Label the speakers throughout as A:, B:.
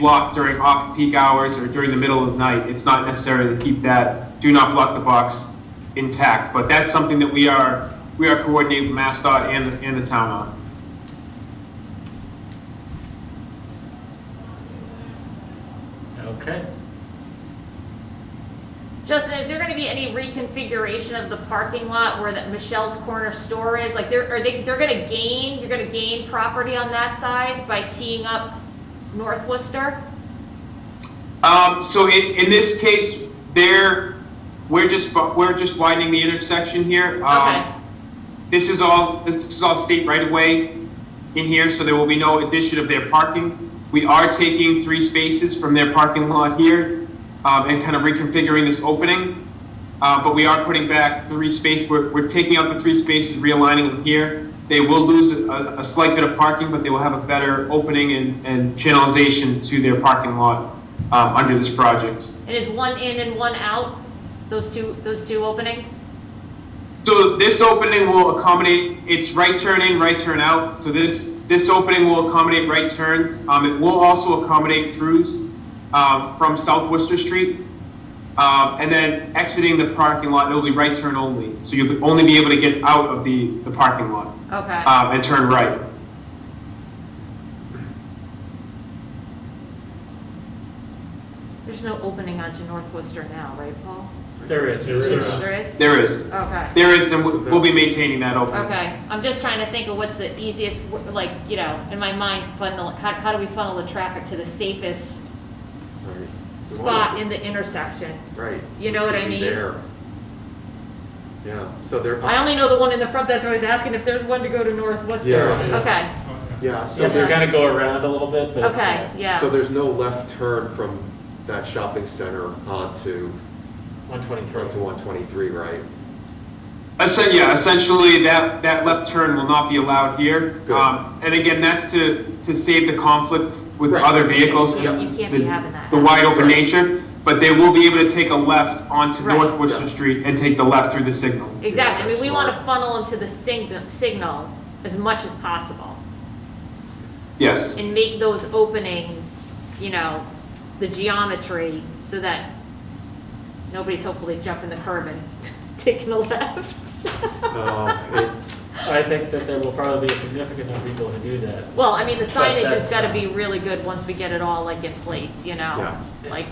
A: blocked during off-peak hours or during the middle of night. It's not necessary to keep that do not block the box intact, but that's something that we are, we are coordinating with MassDOT and, and the town on.
B: Okay.
C: Justin, is there going to be any reconfiguration of the parking lot where that Michelle's corner store is? Like, they're, are they, they're going to gain, you're going to gain property on that side by teeing up North Worcester?
A: Um, so in, in this case, there, we're just, bu- we're just widening the intersection here. Um,
C: Okay.
A: This is all, this is all state right-of-way in here, so there will be no addition of their parking. We are taking three spaces from their parking lot here, um, and kind of reconfiguring this opening. Uh, but we are putting back three spaces, we're, we're taking out the three spaces, realigning them here. They will lose a, a slight bit of parking, but they will have a better opening and, and channelization to their parking lot, um, under this project.
C: And is one in and one out, those two, those two openings?
A: So this opening will accommodate, it's right turn in, right turn out. So this, this opening will accommodate right turns. Um, it will also accommodate throughs, uh, from South Worcester Street. Um, and then exiting the parking lot, it'll be right turn only. So you'll only be able to get out of the, the parking lot,
C: Okay.
A: um, and turn right.
C: There's no opening onto North Worcester now, right, Paul?
B: There is.
D: There is.
C: There is?
A: There is,
C: Okay.
A: there is, then we'll we'll be maintaining that opening.
C: Okay, I'm just trying to think of what's the easiest, w- like, you know, in my mind, funnel, how, how do we funnel the traffic to the safest spot in the intersection?
D: Right.
C: You know what I
D: Should be
C: mean?
D: there. Yeah, so they're.
C: I only know the one in the front that's always asking if there's one to go to North Worcester.
D: Yeah.
C: Okay,
D: Yeah,
B: So
D: so
B: they're
D: there's,
B: gonna go around a little bit, but it's
C: okay,
B: not.
C: yeah.
D: so there's no left turn from that shopping center onto,
B: One
D: onto
B: twenty-three.
D: one twenty-three, right?
A: Essen- yeah, essentially, that, that left turn will not be allowed here.
D: Good.
A: Um, And again, that's to, to save the conflict with
D: Right.
A: other vehicles.
C: You
D: yeah.
C: you can't be having that.
A: The wide open nature, but they will be able to take a left onto
C: Right.
A: North Worcester
D: Yeah.
A: Street and take the left through the signal.
C: Exactly, I mean,
D: That's
C: we want to
D: smart.
C: funnel them to the signal, signal as much as possible
A: Yes,
C: and make those openings, you know, the geometry so that nobody's hopefully jumping the curb and taking a left.
D: Um, it-
B: I think that there will probably be a significant number of people to do that.
C: Well, I mean, the signage has
B: that's-
C: got to be really good once we get it all like in place, you know?
D: Yeah.
C: Like,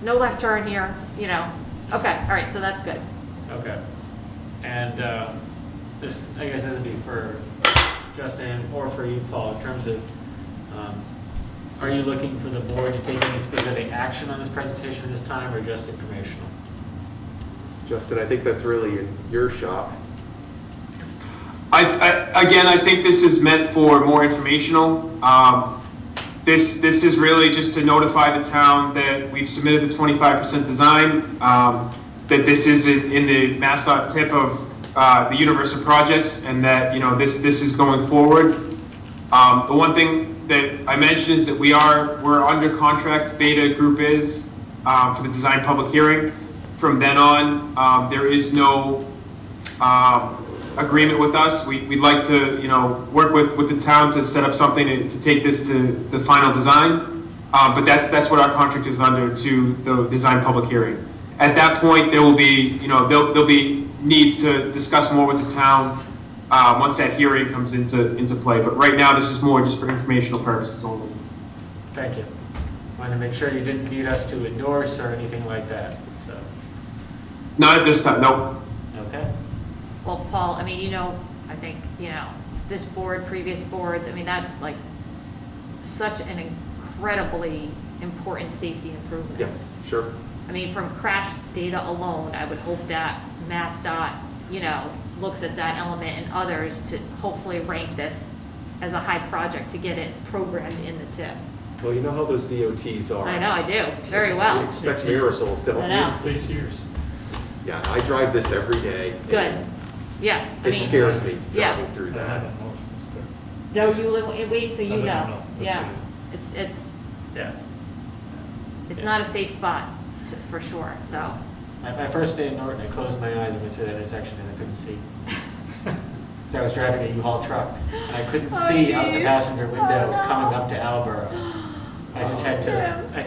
C: no left turn here, you know? Okay, all right, so that's good.
B: Okay. And uh, this, I guess this would be for Justin or for you, Paul, in terms of, um, are you looking for the board to take any specific action on this presentation at this time or just informational?
D: Justin, I think that's really in your shop.
A: I, I, again, I think this is meant for more informational. Um, This, this is really just to notify the town that we've submitted the twenty-five percent design, um, that this is in, in the MassDOT tip of, uh, the universe of projects, and that, you know, this, this is going forward. Um, the one thing that I mentioned is that we are, we're under contract, Beta Group is, um, for the design public hearing. From then on, um, there is no, um, agreement with us. We, we'd like to, you know, work with, with the town to set up something to, to take this to the final design. Uh, but that's, that's what our contract is under to the design public hearing. At that point, there will be, you know, there'll, there'll be needs to discuss more with the town, uh, once that hearing comes into, into play. But right now, this is more just for informational purposes only.
B: Thank you. Wanted to make sure you didn't need us to endorse or anything like that, so,
A: Not at this time, no.
B: okay?
C: Well, Paul, I mean, you know, I think, you know, this board, previous boards, I mean, that's like such an incredibly important safety improvement.
D: Yeah, sure.
C: I mean, from crash data alone, I would hope that MassDOT, you know, looks at that element and others to hopefully rank this as a high project to get it programmed in the tip.
D: Well, you know how those DOTs are.
C: I know, I do, very
D: You
C: well.
D: expect miracles, don't
C: I
D: you?
C: know,
E: Eight years.
D: Yeah, I drive this every day.
C: good, yeah. I
D: It
C: mean,
D: scares me
C: Yeah.
D: driving through
E: I
D: that.
E: haven't motioned this,
C: So you live in Wayne, so you
E: I live in
C: know,
E: North,
C: yeah.
E: that's
C: It's, it's,
B: Yeah.
C: it's
B: Yeah.
C: not a safe spot, t- for sure, so.
B: My, my first day in Norton, I closed my eyes and went through that intersection and I couldn't see. Because I was driving a U-Haul truck and I couldn't
C: Oh,
B: see out the
C: geez.
B: passenger
C: Oh,
B: window
C: no. Oh,
B: coming up to Alborough. I just had to, I